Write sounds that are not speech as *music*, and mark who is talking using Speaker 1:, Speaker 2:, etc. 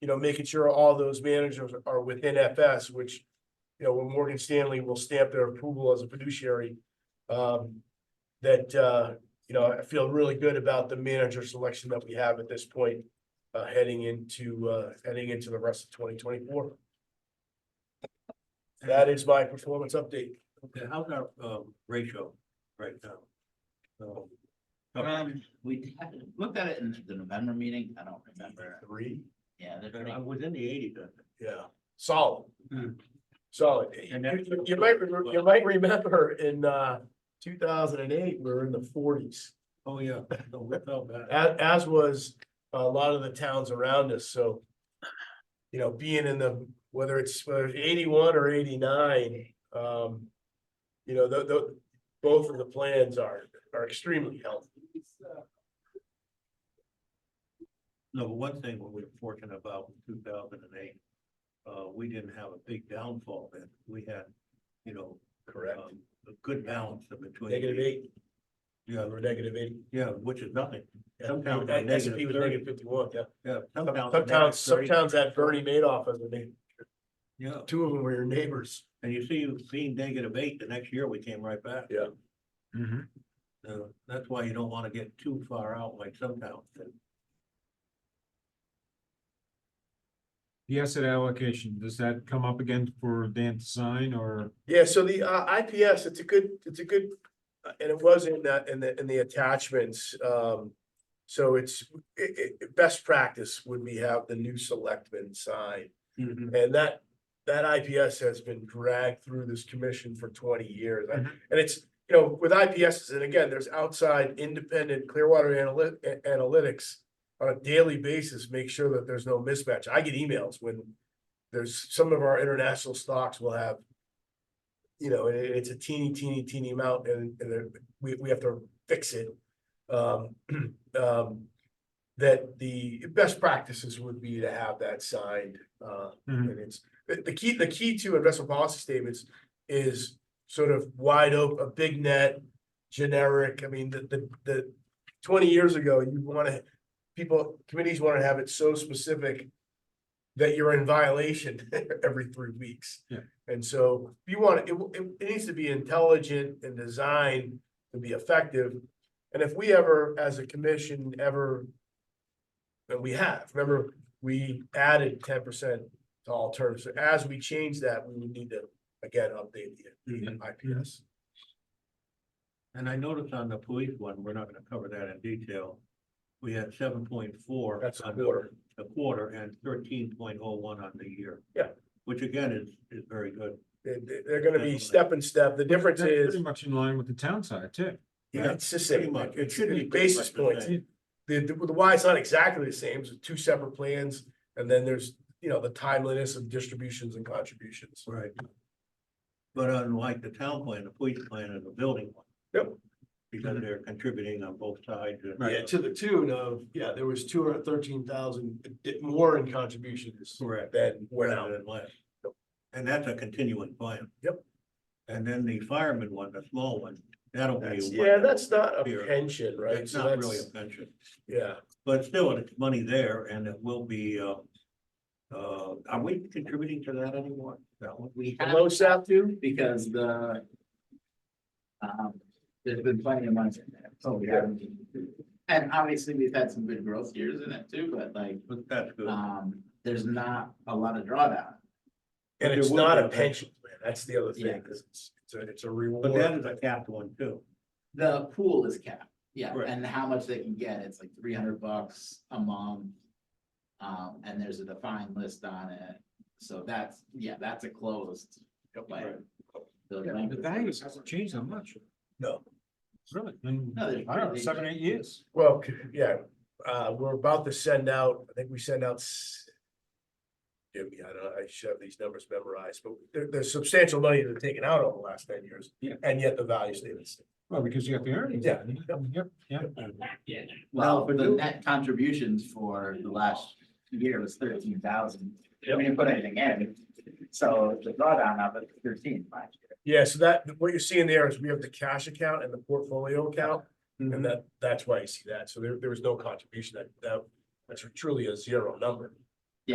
Speaker 1: you know, making sure all those managers are within FS, which, you know, when Morgan Stanley will stamp their approval as a fiduciary, um, that, uh, you know, I feel really good about the manager selection that we have at this point, uh, heading into, uh, heading into the rest of twenty twenty-four. That is my performance update.
Speaker 2: Okay, how's our um ratio right now? So, okay,
Speaker 3: Um, we looked at it in the November meeting, I don't remember,
Speaker 1: Three.
Speaker 3: yeah, they're
Speaker 2: I
Speaker 3: pretty,
Speaker 2: was in the eighties.
Speaker 1: Yeah, solid.
Speaker 2: Hmm.
Speaker 1: Solid.
Speaker 2: And that's-
Speaker 1: You you might, remember- you might remember in, uh, two thousand and eight, we were in the forties,
Speaker 2: Oh, yeah. So we felt bad.
Speaker 1: as, as was a lot of the towns around us, so. You know, being in the, whether it's whether it's eighty-one or eighty-nine, um, you know, tho- tho- both of the plans are, are extremely healthy.
Speaker 2: No, but one thing we were fortunate about in two thousand and eight, uh, we didn't have a big downfall then. We had, you know, um, a good balance in between.
Speaker 1: Negative eight,
Speaker 2: Yeah,
Speaker 1: we're negative eight.
Speaker 2: yeah, which is nothing.
Speaker 1: Yeah.
Speaker 2: Sometimes we're
Speaker 1: S and P was
Speaker 2: negative
Speaker 1: negative fifty-one, yeah.
Speaker 2: Yeah.
Speaker 1: Some
Speaker 2: sometimes-
Speaker 1: some towns, some
Speaker 2: 30.
Speaker 1: towns had Bernie Madoff as a name,
Speaker 2: Yeah,
Speaker 1: two of them were your neighbors.
Speaker 2: and you see, being negative eight, the next year we came right back.
Speaker 1: Yeah.
Speaker 4: Mm-hmm.
Speaker 2: So that's why you don't wanna get too far out like some towns did.
Speaker 4: The asset allocation, does that come up again for Dan to sign or?
Speaker 1: Yeah, so the uh IPS, it's a good, it's a good, uh, and it was in that, in the, in the attachments, um. So it's, it, it, best practice would be have the new selectmen sign, and that, that IPS has been dragged through this commission for twenty years. I-
Speaker 4: Mhm.
Speaker 1: And it's, you know, with IPSs, and again, there's outside independent Clearwater analyt- a- analytics. On a daily basis, make sure that there's no mismatch. I get emails when there's, some of our international stocks will have. You know, it, it's a teeny, teeny, teeny amount and, and there- we, we have to fix it. Um, *clears throat* um, that the best practices would be to have that signed, uh,
Speaker 4: Mhm.
Speaker 1: and it's, the, the key, the key to investment policy statements is sort of wide open, a big net, generic, I mean, the, the, the. Twenty years ago, you wanna, people, committees wanna have it so specific that you're in violation *laughs* every three weeks.
Speaker 4: Yeah.
Speaker 1: And so you want, it, it, it needs to be intelligent and designed to be effective. And if we ever, as a commission, ever, and we have, remember, we added ten percent to all terms. So As we change that, we would need to, again, update the the IPS.
Speaker 2: And I noticed on the police one, we're not gonna cover that in detail. We had seven point four.
Speaker 1: That's a quarter.
Speaker 2: A quarter and thirteen point oh one on the year.
Speaker 1: Yeah.
Speaker 2: Which again is, is very good.
Speaker 1: They, they- they're gonna be step and step. The difference
Speaker 4: That's
Speaker 1: is,
Speaker 4: Pretty much in line with the town side too.
Speaker 1: yeah, it's the
Speaker 2: Pretty
Speaker 1: same,
Speaker 2: much.
Speaker 1: it
Speaker 2: It
Speaker 1: should
Speaker 2: should
Speaker 1: be
Speaker 2: be
Speaker 1: basis points.
Speaker 2: pretty
Speaker 1: The, the, the why it's not exactly the same, it's two separate plans, and then there's, you know, the timeliness of distributions and contributions.
Speaker 2: Right. But unlike the town plan, the police plan is a building one.
Speaker 1: Yep.
Speaker 2: Because they're contributing on both sides. and-
Speaker 1: Yeah, to the tune of, yeah, there was two hundred thirteen thousand more in contributions
Speaker 2: Correct.
Speaker 1: than went
Speaker 2: rather
Speaker 1: out.
Speaker 2: than less. And that's a continuing plan.
Speaker 1: Yep.
Speaker 2: And then the fireman one, the small one, that'll be.
Speaker 1: That's-
Speaker 2: what-
Speaker 1: Yeah, that's not a
Speaker 2: Here.
Speaker 1: pension, right?
Speaker 2: It's
Speaker 1: So
Speaker 2: not really a
Speaker 1: that's-
Speaker 2: pension,
Speaker 1: Yeah.
Speaker 2: but still, it's money there and it will be, uh, uh, are we contributing to that anymore? That one?
Speaker 3: we
Speaker 1: The
Speaker 3: have.
Speaker 1: low south too?
Speaker 3: Because the. Um, there's been plenty of money in there, so we haven't. And obviously, we've had some good growth years in it too, but like,
Speaker 2: But that's good.
Speaker 3: um, there's not a lot of drawdown.
Speaker 2: But
Speaker 1: And
Speaker 2: there
Speaker 1: it's
Speaker 2: will
Speaker 1: not
Speaker 2: be
Speaker 1: a
Speaker 2: a
Speaker 1: pension
Speaker 2: pension.
Speaker 1: plan, that's the other
Speaker 3: Yeah.
Speaker 1: thing, 'cause it's, it's a, it's a
Speaker 2: But that is
Speaker 1: reward.
Speaker 2: a capped one too.
Speaker 3: The pool is capped, yeah,
Speaker 2: Right.
Speaker 3: and how much they can get, it's like three hundred bucks a month. Um, and there's a defined list on it, so that's, yeah, that's a closed.
Speaker 2: Right.
Speaker 3: plan. The
Speaker 4: The values hasn't changed that much,
Speaker 1: No,
Speaker 4: really. In,
Speaker 3: No,
Speaker 4: I
Speaker 3: there's-
Speaker 4: don't know, seven, eight years.
Speaker 1: well, c- yeah, uh, we're about to send out, I think we send out. s- Jimmy, I don't, I should have these numbers memorized, but there, there's substantial money that's taken out over the last ten years.
Speaker 4: Yeah.
Speaker 1: And yet the value stays.
Speaker 4: Well, because you got the earnings.
Speaker 1: Yeah.
Speaker 4: Yep, yeah.
Speaker 3: Well,
Speaker 2: Now,
Speaker 3: the
Speaker 2: Purdue-
Speaker 3: net contributions for the last year was thirteen thousand. We didn't put anything in, so the drawdown of it was thirteen last year.
Speaker 1: Yeah, so that, what you're seeing there is we have the cash account and the portfolio account,
Speaker 4: Mm-hmm.
Speaker 1: and that, that's why you see that, so there, there was no contribution, that, that, that's truly a zero number.